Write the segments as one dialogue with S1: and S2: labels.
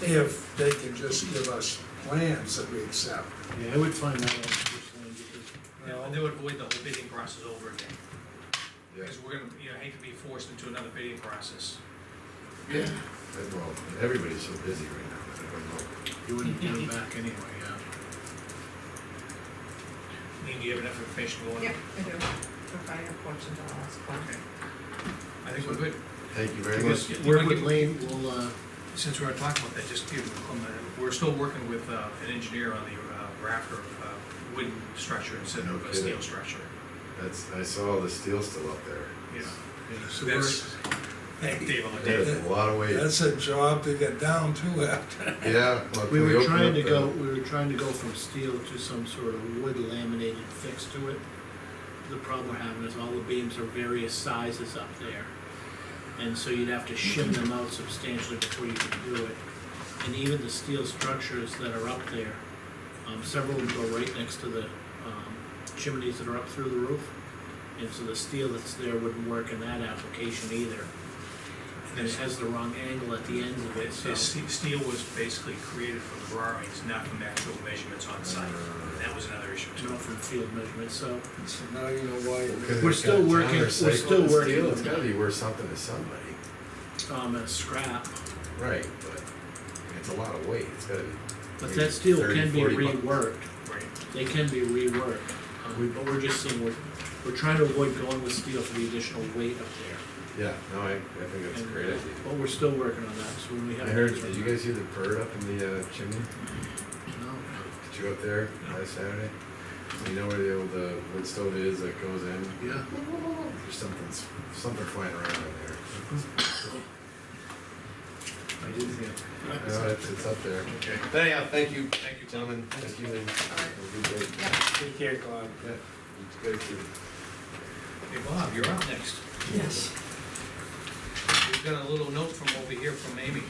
S1: if they can just give us plans that we accept.
S2: Yeah, I would find that out personally, because
S3: Yeah, and they would avoid the whole bidding process over again,
S4: Yeah,
S3: because we're gonna, you know, hate to be forced into another bidding process.
S4: yeah, That's well, everybody's so busy right now, that I don't know.
S2: you wouldn't give it back anyway, yeah.
S3: Lean, do you have enough information going?
S5: Yep, I do. If I have questions, I'll ask one.
S3: Okay. I think we're good,
S4: Thank you very
S3: Because-
S4: much.
S3: Yeah,
S2: Work
S3: I
S2: with
S3: give-
S2: Lane, we'll, uh,
S3: since we're talking about that, just give them a comment, we're still working with, uh, an engineer on the, uh, rafter, of, uh, wooden structure instead
S4: No
S3: of a
S4: kidding.
S3: steel structure.
S4: That's, I saw the steel still up there.
S3: Yeah,
S2: yeah, so we're,
S3: that's, thank Dave on the
S4: There's
S3: day.
S4: a lot of weight.
S1: That's a job to get down to after.
S4: Yeah. well,
S2: we
S4: can
S2: were
S4: open
S2: trying
S4: up
S2: to
S4: the-
S2: go, we were trying to go from steel to some sort of wood laminated fix to it. The problem we're having is all the beams are various sizes up there. And so you'd have to shim them out substantially before you can do it. And even the steel structures that are up there, um, several of them go right next to the, um, chimneys that are up through the roof. And so the steel that's there wouldn't work in that application either. And it has the wrong angle at the ends of it,
S3: It's-
S2: so.
S3: it's- Steel was basically created from drawings, not from actual measurements on site,
S2: Uh.
S3: and that was another issue too.
S2: not from field measurements, so
S1: So now you know why.
S4: Look at
S2: We're
S4: it,
S2: still
S4: got
S2: working-
S4: tire
S2: we're
S4: cycle
S2: still
S4: and
S2: working
S4: steel,
S2: on
S4: It's
S2: that.
S4: gotta be worth something to somebody.
S2: um, a scrap.
S4: Right, but it's a lot of weight, it's gotta be.
S2: But
S4: maybe
S2: that steel
S4: 30,
S2: can be
S4: 40 bucks.
S2: reworked,
S3: Right.
S2: they can be reworked, um, but we're just saying, we're, we're trying to avoid going with steel for the additional weight up there.
S4: Yeah, no, I, I think that's a
S2: And,
S4: great
S2: uh,
S4: idea.
S2: But we're still working on that, so when we
S4: I
S2: have.
S4: heard, did you guys hear the bird up in the uh, chimney?
S2: No.
S4: Did you go up there last Saturday? You know where the old uh, wood stove is that goes in?
S2: Yeah,
S4: There's something, something flying around in there.
S2: I did hear.
S4: No, it's, it's up there.
S3: Okay.
S4: But anyhow, thank you, thank you, gentlemen. Thank you. Lynn. Have a good day.
S5: Yep.
S1: Take care, Claude.
S4: Yeah, you guys too.
S3: Hey, Bob, you're up next.
S6: Yes.
S3: We've got a little note from over here from Amy.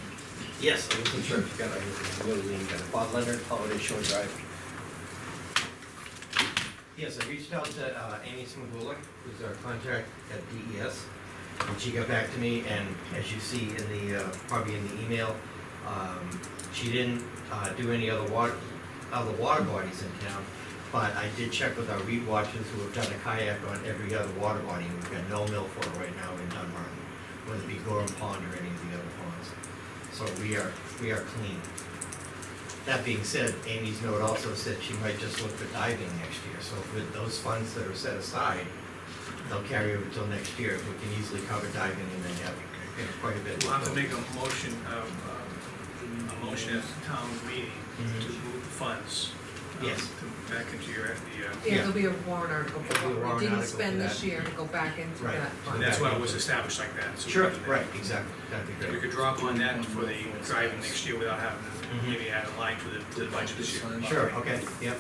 S6: Yes, I wasn't sure if you got, I really didn't get it. Bob Leonard, Holiday Shore Drive. Yes, I reached out to uh, Amy Smigula, who's our contact at DES. And she got back to me, and as you see in the, uh, probably in the email, um, she didn't uh, do any other water, other water bodies in town. But I did check with our weed watchers who have done a kayak on every other water body. We've got no milfoil right now in Dunbar, whether it be Gorham Pond or any of the other ponds. So we are, we are clean. That being said, Amy's note also said she might just look for diving next year. So with those funds that are set aside, they'll carry over till next year. We can easily cover diving and then have, you know, quite a bit.
S3: We'll have to make a motion, uh,
S6: Oh,
S3: uh, a motion at the town meeting to
S6: Mhm.
S3: move funds. uh,
S6: Yes.
S3: to- Back into your, the, uh,
S5: Yeah,
S6: Yeah.
S5: there'll be a warrant article.
S6: There'll be a warrant
S5: We didn't
S6: article for
S5: spend this
S6: that.
S5: year and go back into
S6: Right.
S5: that.
S3: uh,
S5: fund.
S3: that's why it was established like that. so we
S6: Sure,
S3: can do that.
S6: right, exactly. That'd be
S3: We
S6: great.
S3: could draw upon that for the driving next year without having, to
S6: Mhm.
S3: maybe add a line to the, to the budget this year.
S6: Sure, okay, yep.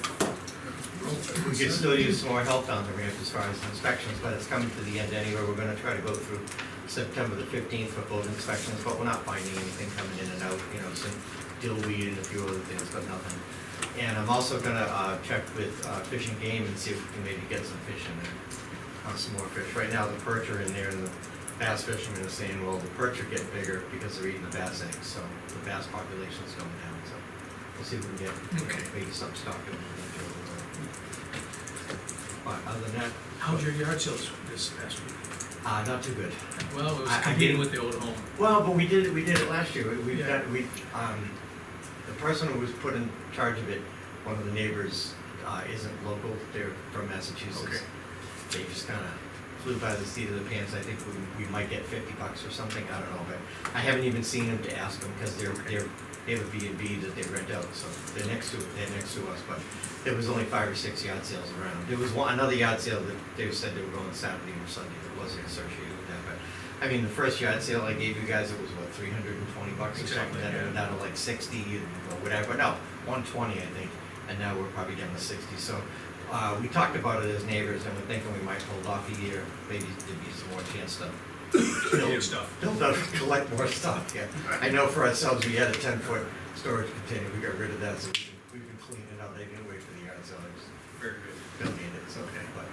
S6: We could still use some more help down the ramp as far as inspections, but it's coming to the end anyway. We're gonna try to go through September the fifteenth for both inspections, but we're not finding anything coming in and out, you know, some dill weed and a few other things, but nothing. And I'm also gonna, uh, check with, uh, Fish and Game and see if we can maybe get some fish in there, uh, some more fish. Right now, the perch are in there and the bass fishermen are saying, well, the perch are getting bigger because they're eating the bass eggs, so the bass population's going down, so we'll see if we can
S3: Okay.
S6: get maybe some stock in there. But other than that,
S3: How'd your yard sales this past week?
S6: uh, not too good.
S3: Well, it was
S6: I- I
S3: competing
S6: did-
S3: with the old home.
S6: Well, but we did, we did it last year, we, we've
S3: Yeah.
S6: got, we, um, the person who was put in charge of it, one of the neighbors, uh, isn't local, they're from
S3: Okay.
S6: Massachusetts. They just kinda flew by the seat of the pants, I think we, we might get fifty bucks or something, I don't know, but I haven't even seen them to ask them, cause they're, they're, they have a B and B that they rent out, so they're next to, they're next to us, but there was only five or six yard sales around. There was one, another yard sale that they said they were going Saturday or Sunday, that wasn't associated with that, but I mean, the first yard sale I gave you guys, it was what, three hundred and twenty bucks or something,
S3: Exactly,
S6: then it went
S3: yeah.
S6: down to like sixty or whatever, no, one twenty, I think, and now we're probably down to sixty, so, uh, we talked about it as neighbors, and we're thinking we might hold off a year, maybe there'd be some more chance to
S3: Old stuff.
S6: Build up, collect more stuff, yeah. I know for ourselves, we had a ten-foot storage container, we got rid of that, so we can- we can clean it out, I didn't wait for the yard sale, I just
S3: Very good.
S6: don't need it, so, okay, but,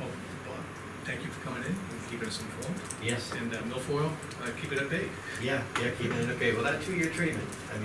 S3: Well, Bob, thank you for coming in and keeping us informed.
S6: yes,
S3: And uh, milfoil, uh, keep it at bay.
S6: yeah, yeah, keeping it okay, well, that two-year treatment, I mean,